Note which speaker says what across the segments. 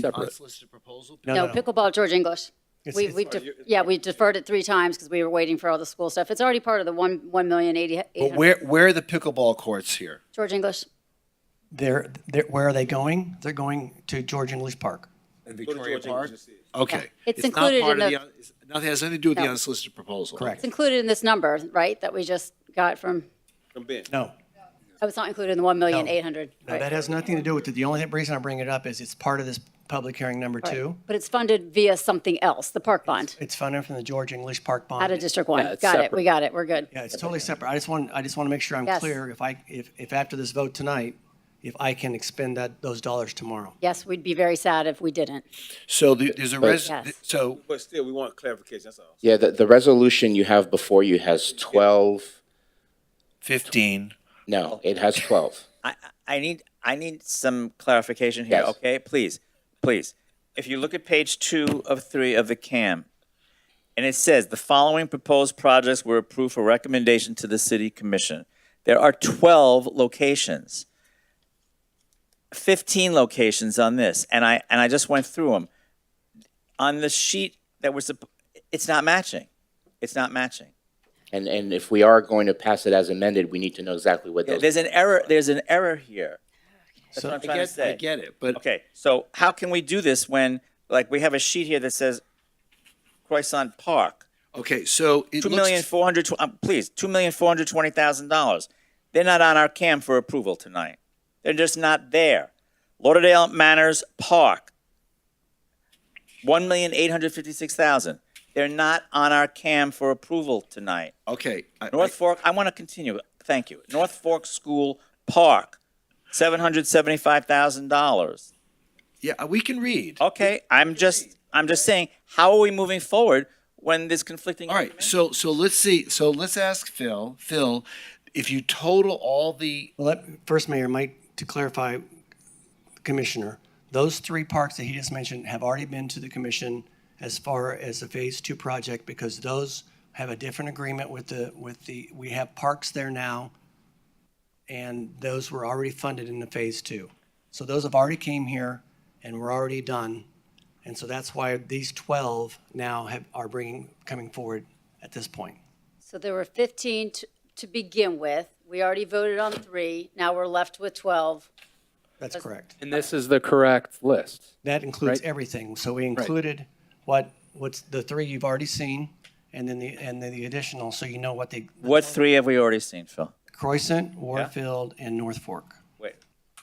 Speaker 1: separate.
Speaker 2: Unsolicited proposal?
Speaker 3: No,
Speaker 2: All
Speaker 3: no,
Speaker 4: No,
Speaker 3: no.
Speaker 4: pickleball, George English.
Speaker 3: It's-
Speaker 4: We,
Speaker 3: it's-
Speaker 4: we, def- yeah, we deferred it three times because we were waiting for all the school stuff. It's already part of the one, one million eighty.
Speaker 2: But where, where are the pickleball courts here?
Speaker 4: George English,
Speaker 3: They're, they're, where are they going? They're going to George English Park.
Speaker 2: In
Speaker 1: Go to
Speaker 2: Victoria
Speaker 1: George
Speaker 2: Park?
Speaker 1: English.
Speaker 2: Okay.
Speaker 4: It's
Speaker 2: not
Speaker 4: included
Speaker 2: part
Speaker 4: in
Speaker 2: of
Speaker 4: the-
Speaker 2: un- it's- Nothing, has nothing to do with the
Speaker 4: No.
Speaker 2: unsolicited proposal.
Speaker 3: Correct.
Speaker 4: it's included in this number, right, that we just got from,
Speaker 1: From Ben.
Speaker 3: No,
Speaker 4: oh, it's not included in the one million eight hundred.
Speaker 3: no, that has nothing to do with it. The only reason I bring it up is it's part of this public hearing number two.
Speaker 4: But it's funded via something else, the park bond,
Speaker 3: It's funded from the George English Park bond.
Speaker 4: out of District One.
Speaker 1: it's
Speaker 4: Got it,
Speaker 1: separate.
Speaker 4: we got it, we're good.
Speaker 3: Yeah, it's totally separate. I just want, I just want to make sure I'm
Speaker 4: Yes.
Speaker 3: clear if I, if, if after this vote tonight, if I can expend that, those dollars tomorrow.
Speaker 4: Yes, we'd be very sad if we didn't.
Speaker 2: So the- there's a res,
Speaker 4: Yes.
Speaker 2: so,
Speaker 1: But still, we want clarification, that's all.
Speaker 5: Yeah, the, the resolution you have before you has 12,
Speaker 2: 15,
Speaker 5: no, it has 12.
Speaker 6: I, I I need, I need some clarification here,
Speaker 5: Yes.
Speaker 6: okay? Please, please. If you look at page two of three of the CAM, and it says, "The following proposed projects were approved for recommendation to the city commission." There are 12 locations. 15 locations on this, and I, and I just went through them. On the sheet that was, it's not matching. It's not matching.
Speaker 5: And, and if we are going to pass it as amended, we need to know exactly what those.
Speaker 6: There's an error, there's an error here. That's what I'm
Speaker 2: I
Speaker 6: trying to
Speaker 2: get, I
Speaker 6: say.
Speaker 2: get it, but
Speaker 6: Okay, so how can we do this when, like, we have a sheet here that says Croissant Park,
Speaker 2: Okay, so it
Speaker 6: two million
Speaker 2: looks,
Speaker 6: four hundred tw- uh, please, two million four hundred twenty thousand dollars. They're not on our cam for approval tonight. They're just not there. Lauderdale Manors Park, one million eight hundred fifty-six thousand. They're not on our cam for approval tonight.
Speaker 2: okay. I-
Speaker 6: North Fork, I want to continue. Thank you. North Fork School Park, seven hundred seventy-five thousand dollars.
Speaker 2: Yeah, we can read.
Speaker 6: Okay, I'm just, I'm just saying, how are we moving forward when there's conflicting?
Speaker 2: All right, so, so let's see, so let's ask Phil, Phil, if you total all the,
Speaker 3: Well, let, first, Mayor, Mike, to clarify, Commissioner, those three parks that he just mentioned have already been to the commission as far as the phase two project because those have a different agreement with the, with the, we have parks there now. And those were already funded in the phase two. So those have already came here and were already done. And so that's why these twelve now have, are bringing, coming forward at this point.
Speaker 4: So there were 15 to- to begin with. We already voted on three. Now we're left with 12.
Speaker 3: That's correct.
Speaker 7: And this is the correct list.
Speaker 3: That includes
Speaker 7: Right.
Speaker 3: everything. So we included what, what's the three you've already seen and then the, and then the additional, so you know what they,
Speaker 6: What three have we already seen, Phil?
Speaker 3: Croissant, Warfield, and North Fork.
Speaker 6: Wait,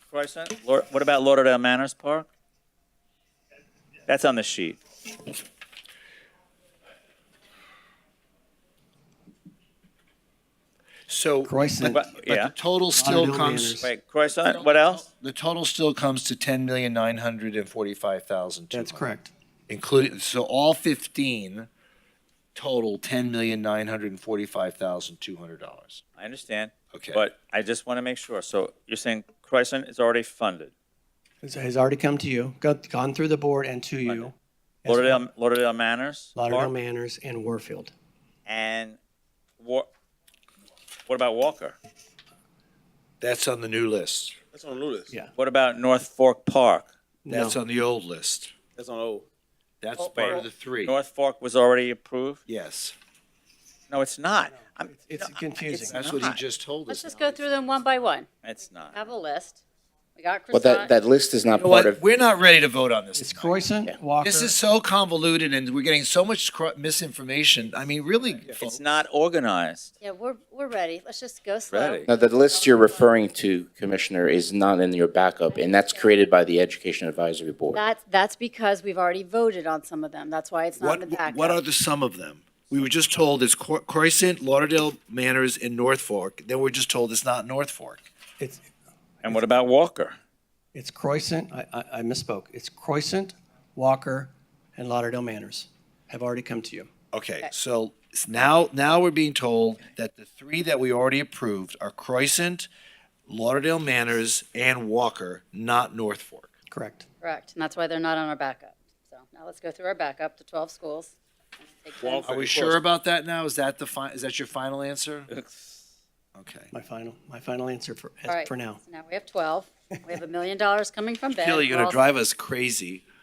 Speaker 6: Croissant, Lord, what about Lauderdale Manors Park? That's on the sheet.
Speaker 2: so.
Speaker 3: Croissant.
Speaker 2: but- But
Speaker 6: Yeah.
Speaker 2: the total still
Speaker 3: Lauderdale
Speaker 2: comes,
Speaker 3: Manors.
Speaker 6: Wait, Croissant, what else?
Speaker 2: the total still comes to ten million nine hundred and forty-five thousand two hundred.
Speaker 3: That's correct.
Speaker 2: including so all 15 total $10,945,200
Speaker 6: I understand.
Speaker 2: Okay.
Speaker 6: But I just want to make sure. So you're saying Croissant is already funded?
Speaker 3: It's- Has already come to you, go- gone through the board and to you,
Speaker 6: Lauderdale, Lauderdale Manors? Park?
Speaker 3: Lauderdale Manors and Warfield.
Speaker 6: And Wa- what about Walker?
Speaker 2: that's on the new list
Speaker 1: That's on the new list.
Speaker 3: Yeah.
Speaker 6: What about North Fork Park?
Speaker 3: No,
Speaker 2: that's on the old list
Speaker 1: That's on old.
Speaker 2: that's
Speaker 6: Oh,
Speaker 2: part
Speaker 6: wait.
Speaker 2: of the three
Speaker 6: North Fork was already approved?
Speaker 2: yes
Speaker 6: No, it's not. I'm-
Speaker 3: it's
Speaker 6: no,
Speaker 3: confusing.
Speaker 2: that's what he
Speaker 6: not.
Speaker 2: just told
Speaker 4: Let's
Speaker 2: us
Speaker 4: just
Speaker 2: now.
Speaker 4: go through them one by one.
Speaker 6: It's not.
Speaker 4: Have a list. We got
Speaker 5: But that,
Speaker 4: croissant.
Speaker 5: that list is not
Speaker 2: You know
Speaker 5: part
Speaker 2: what?
Speaker 5: of,
Speaker 2: we're not ready to vote on this
Speaker 3: It's
Speaker 2: tonight.
Speaker 3: Croissant, Walker.
Speaker 2: this is so convoluted and we're getting so much cr- misinformation i mean really
Speaker 6: It's
Speaker 2: folks,
Speaker 6: not organized.
Speaker 4: Yeah, we're, we're ready. Let's just go slow.
Speaker 6: Ready.
Speaker 5: now, the list you're referring to, Commissioner, is not in your backup, and that's created by the Education Advisory Board.
Speaker 4: That's, that's because we've already voted on some of them. That's why it's not in the
Speaker 2: what,
Speaker 4: packet.
Speaker 2: what are the sum of them we were just told it's Cro- Croissant, Lauderdale Manors, and North Fork. Then we're just told it's not North Fork.
Speaker 3: It's,
Speaker 6: And what about Walker?
Speaker 3: it's Croissant, I, I I misspoke. It's Croissant, Walker, and Lauderdale Manors have already come to you.
Speaker 2: Okay, so it's now, now we're being told that the three that we already approved are Croissant, Lauderdale Manors, and Walker, not North Fork.
Speaker 3: Correct.
Speaker 4: Correct, and that's why they're not on our backup. So now let's go through our backup, the 12 schools. Take them.
Speaker 2: Are we sure about that now? Is that the fi, is that your final answer? Okay.
Speaker 3: My final, my final answer for,
Speaker 4: All right,
Speaker 3: for now.
Speaker 4: so Now we have 12. We have a million dollars coming from Ben.
Speaker 2: Kelly, you're
Speaker 4: We're
Speaker 2: gonna
Speaker 4: all-
Speaker 2: drive us crazy.